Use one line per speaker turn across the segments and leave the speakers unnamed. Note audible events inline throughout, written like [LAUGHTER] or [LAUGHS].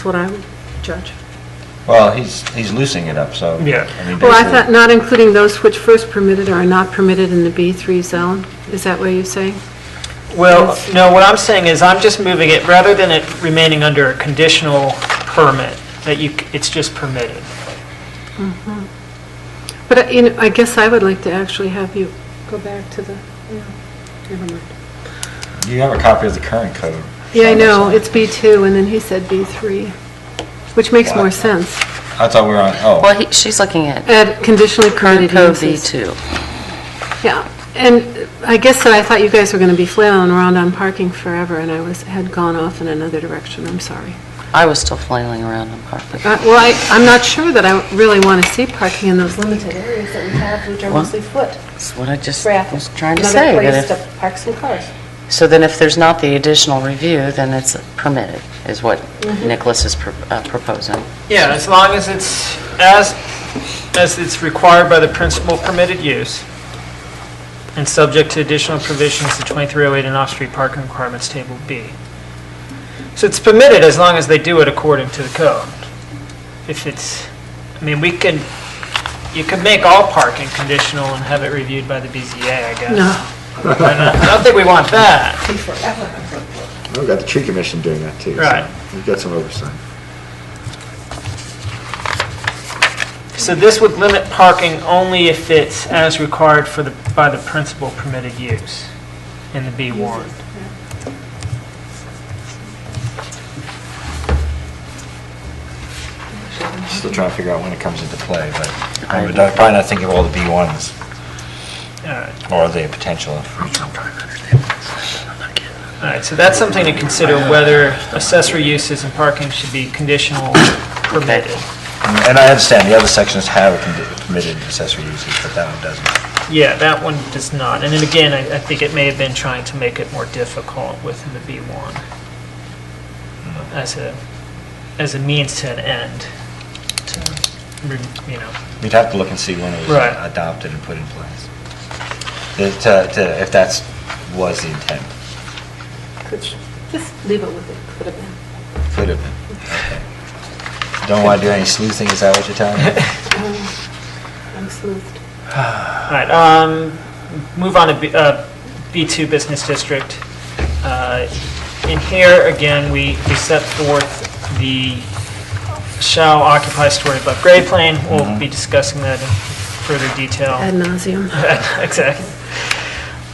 That's what I would judge.
Well, he's, he's loosening it up, so.
Yeah.
mean,
Well, I
basically-
thought not including those which first permitted or are not permitted in the B3 zone. Is that what you're saying?
Well, no, what I'm saying is I'm just moving it, rather than it remaining under a conditional permit, that you, c- it's just permitted.
But, uh, you know, I guess I would like to actually have you go back to the, yeah, never mind.
You have a copy of the current code.
Yeah, I know, it's B2, and then he said B3, which makes more
Wow.
sense.
I thought we were on, oh,
Well, he- she's looking at
Add conditionally
current
permitted
code
uses.
V2.
Yeah, and I guess that I thought you guys were going to be flailing around on parking forever, and I was, had gone off in another direction, I'm sorry.
I was still flailing around on carpet.
Uh, Well, I, I'm not sure that I really want to see parking in those limited areas that we have, which are
Well,
mostly foot.
That's what I just
traffic.
was trying to say. that
Another
if-
place to park some cars.
So then if there's not the additional review, then it's permitted, is what
Mm-hmm.
Nicholas is pro- uh, proposing.
Yeah, as long as it's, as, as it's required by the principal permitted use, and subject to additional provisions to 2308 and off-street parking requirements, Table B. So it's permitted as long as they do it according to the code. If it's, I mean, we can, you could make all parking conditional and have it reviewed by the BZA, I guess.
No,
Why not? I don't think we want that.
We've got the tree commission doing that too. so
Right.
We've got some oversight.
So this would limit parking only if it's as required for the, by the principal permitted use in the B ward.
still trying to figure out when it comes into play, but I would not- probably not think of all the B1s
All right,
or the potential.
all right, so that's something to consider, whether accessory uses and parking should be conditional permitted.
And I understand, the other sections have a condi- permitted accessory uses, but that one doesn't.
Yeah, that one does not. And then again, I, I think it may have been trying to make it more difficult within the B one uh, as a, as a means to an end, to, re- you know,
We'd have to look and see when it was
Right.
adopted and put in place. If- to- to- If that's, was the intent,
could, just leave it with it, could have been.
could have been. Okay. Don't want to do any sleuthing, is that what you're telling
[LAUGHS]
me?
Um, I'm smoothed.
All right, um, move on to B- uh, B2 Business District. Uh, In here, again, we we set forth the shall occupy story above grade plane. We'll be discussing that in further detail.
Ad nauseum.
[LAUGHS] Exactly.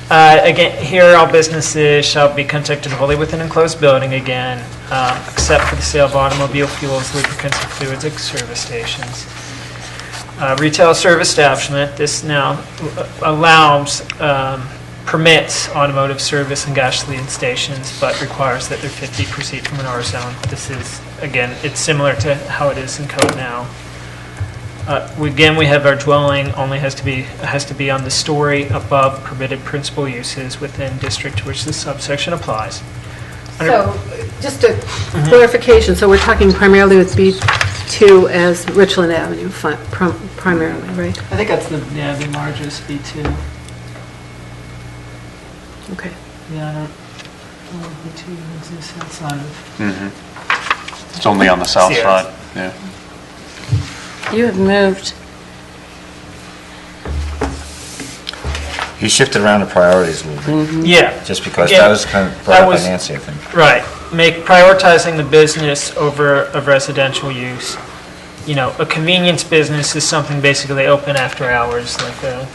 Uh, Again, here, all businesses shall be conducted wholly within enclosed building again, um, except for the sale of automobile fuels, lubricants, and fluids at service stations. Uh, Retail service establishment, this now uh, allows, um, permits automotive service and gasoline stations, but requires that they're 50 proceed from an R zone. This is, again, it's similar to how it is in code now. Uh, we- Again, we have our dwelling only has to be, has to be on the story above permitted principal uses within district to which this subsection applies. Under-
So, just a clarification, so we're talking primarily with B2 as Richland Avenue fi- prim- primarily, right?
I think that's the, yeah, the largest B2.
Okay.
Yeah, I don't, well, B2 exists outside of.
It's only on the south
Sierras.
side, yeah.
You have moved,
He shifted around the priorities a little bit,
Mm-hmm. Yeah.
just because
Again,
that was kind of brought
that
up by
was-
Nancy, I think.
Right, make, prioritizing the business over of residential use. You know, a convenience business is something basically they open after hours, like a,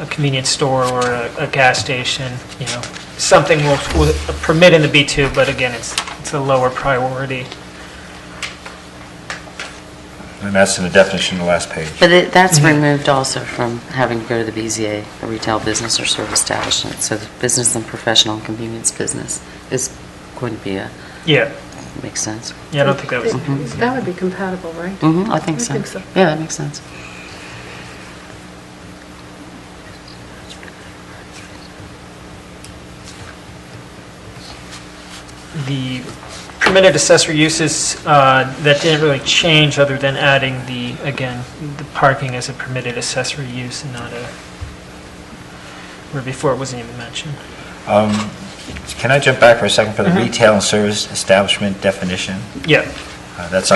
a convenience store or a, a gas station, you know. Something will, will permit in the B2, but again, it's, it's a lower priority.
And that's in the definition on the last page.
but it- that's removed also from having to go to the BZA, a retail business or service establishment. So the business and professional and convenience business is going to be a,
Yeah,
makes sense.
yeah, I don't think that was,
That would be compatible, right?
hmm I think
I
so.
think so.
Yeah, that makes sense.
the permitted accessory uses, uh, that didn't really change other than adding the, again, the parking as a permitted accessory use and not a, where before it wasn't even mentioned. Mm-hmm.
Can I jump back for a second for the retail and service establishment definition?
Yeah,
Uh, That's